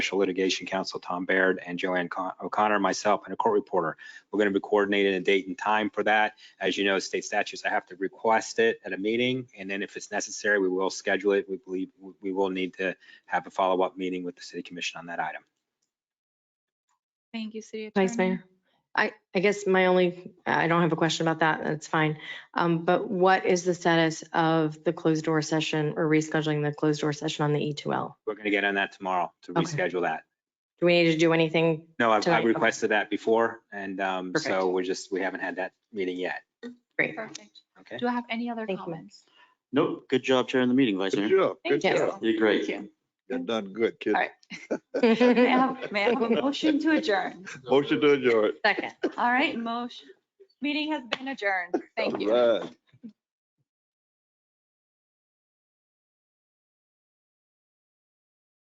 special litigation counsel Tom Baird and Joanne Con- O'Connor, myself, and a court reporter. We're going to be coordinating a date and time for that. As you know, state statutes, I have to request it at a meeting, and then if it's necessary, we will schedule it. We believe we will need to have a follow-up meeting with the city commission on that item. Thank you, City Attorney. Vice Mayor. Um, I, I guess my only, I don't have a question about that. That's fine. Um, but what is the status of the closed door session or rescheduling the closed door session on the E E2L? We're going to get on that tomorrow to Okay. reschedule that. Do we need to do anything? No, I've- I've Tonight, okay. requested that before, and um, so Perfect. we're just, we haven't had that meeting yet, Great. Perfect. okay? Do I have any other Thank you. comments? Nope, good job chairing the meeting, Vice Good Mayor. job. Good Thank Yes. job. you. You're great. You've done good, kid. All right. May I have, may I have a motion to adjourn? Motion to adjourn. Second. All right, motion, meeting has been adjourned. Thank you. All right.